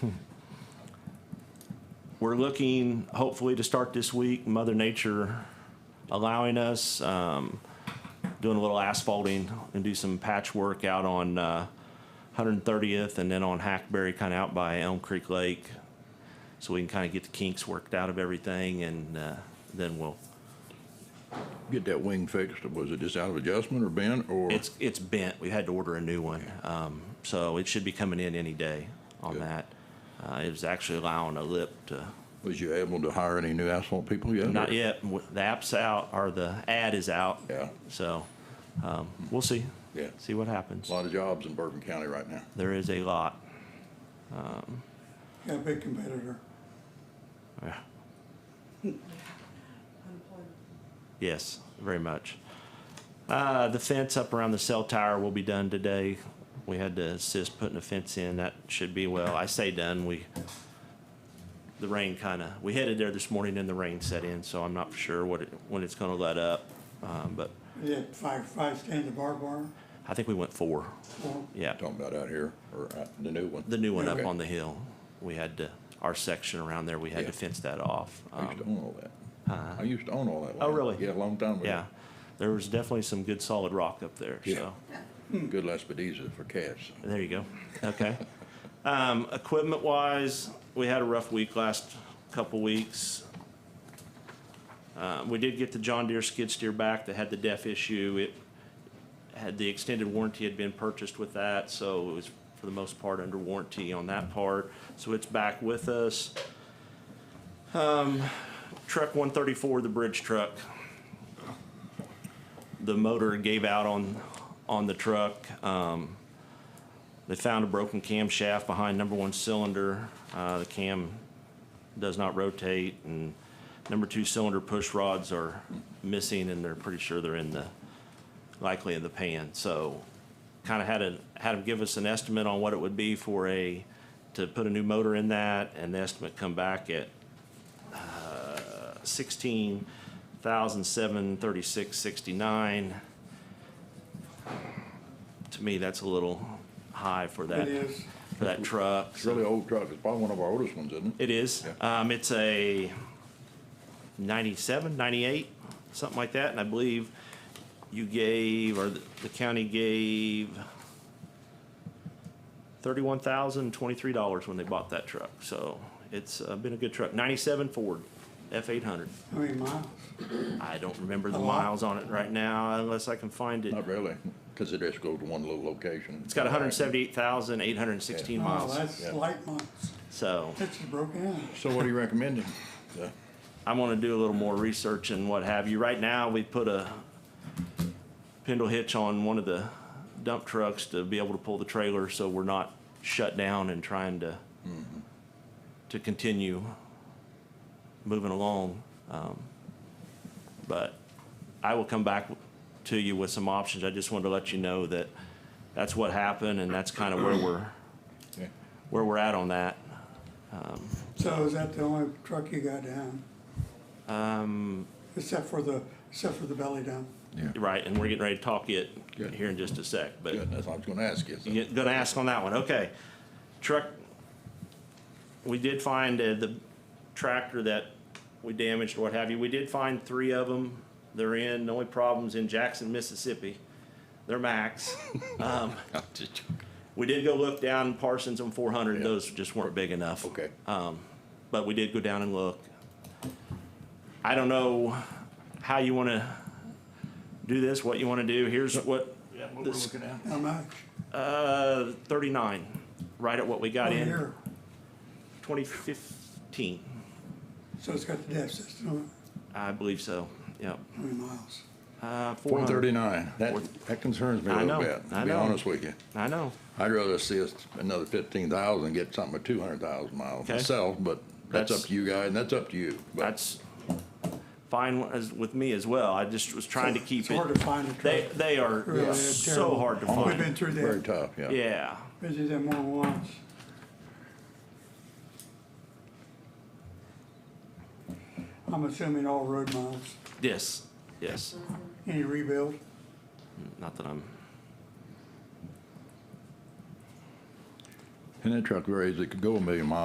We're looking hopefully to start this week, Mother Nature allowing us, um, doing a little asphalting and do some patchwork out on, uh, 130th and then on Hackberry, kind of out by Elm Creek Lake. So we can kind of get the kinks worked out of everything and, uh, then we'll, Get that wing fixed, was it just out of adjustment or bent or? it's, it's bent. We had to order a new one. Um, so it should be coming in any day on Good. that. Uh, it was actually allowing a lip to Was you able to hire any new asphalt people yet? Not yet. W- The app's out, or the ad is out. Yeah. So, um, we'll see. Yeah. See what happens. A lot of jobs in Bourbon County right now. There is a lot. Um, Yeah, big competitor. Yes, very much. Uh, the fence up around the cell tower will be done today. We had to assist putting a fence in. That should be well. I say done. We, the rain kind of, we headed there this morning and the rain set in, so I'm not sure what, it- when it's going to let up. Um, but Is it five, five stands of barbed wire? I think we went four. Or- Yeah. Talking about out here or out- the new one? The new one up Okay. on the hill, we had to, our section around there, we had to Yeah. fence that off. I used to Um, own all that. I used to own all that. Oh, land. really? Yeah, a long time ago. Yeah, there was definitely some good solid rock up there, Yeah. so, Good Las Pediza for cash. there you go, okay. Um, equipment wise, we had a rough week last couple weeks. Uh, we did get the John Deere skid steer back that had the def issue, it had, the extended warranty had been purchased with that, so it was for the most part under warranty on that part, so it's back with us. Um, truck one thirty-four, the bridge truck. The motor gave out on, on the truck. Um, they found a broken camshaft behind number one cylinder. Uh, the cam does not rotate and number two cylinder push rods are missing and they're pretty sure they're in the, likely in the pan. So kind of had a, had them give us an estimate on what it would be for a, to put a new motor in that and the estimate come back at uh, sixteen thousand seven thirty-six sixty-nine. To me, that's a little high for that, It is. for that truck. It's a really old truck. It's probably one of our oldest ones, isn't It it? is. Um, it's a 97, 98, something like that, and I believe you gave, or the the county gave thirty-one thousand, twenty-three dollars when they bought that truck, so it's uh, been a good truck. Ninety-seven Ford F eight hundred. How many miles? I don't remember the A lot. miles on it right now unless I can find it. Not really, because it just goes to one little location. It's got hundred and seventy-eight thousand, eight hundred and sixteen Oh, miles, that's Yeah. light miles. so. That's just broken out. So what are you recommending? Yeah. I want to do a little more research and what have you. Right now, we put a spindle hitch on one of the dump trucks to be able to pull the trailer, so we're not shut down and trying to, to continue moving along. Um, But I will come back to you with some options. I just wanted to let you know that that's what happened, and that's kind of where we're, Yeah. where we're at on that. So is that the only truck you got down? Um, Except for the, except for the belly down? Yeah. Right, and we're getting ready to talk it Good. here in just a sec, but Good, that's what I was gonna ask you. so- You're gonna ask on that one, okay. Truck, we did find uh, the tractor that we damaged, or what have you, we did find three of them. They're in, the only problem's in Jackson, Mississippi. They're max. Um, I'm just joking. we did go look down Parsons and four hundred, Yeah. those just weren't big enough. Okay, But we did go down and look. I don't know how you wanna do this, what you wanna do, here's what. what we're looking at. How much? Uh, thirty-nine, right at what we got One in. year. 2015, So it's got the depth system on it. I believe so. Yep. How many miles? Uh, Four 400. thirty-nine, that, that concerns me a I little know, bit, I to be know. honest with you. I know. I'd rather see us another fifteen thousand, get something at two hundred thousand miles Okay. myself, but that's That's- up to you guys, and that's up to you. But That's fine as with me as well. I just was trying to keep It's hard to it. find a truck. They they Really, are they're so terrible. hard to We've been find. through Very that. tough, yeah. Yeah. Been through that more than once. I'm assuming all road miles. Yes. Yes. Any rebuild? Not that I'm. And that truck varies, it could go a million miles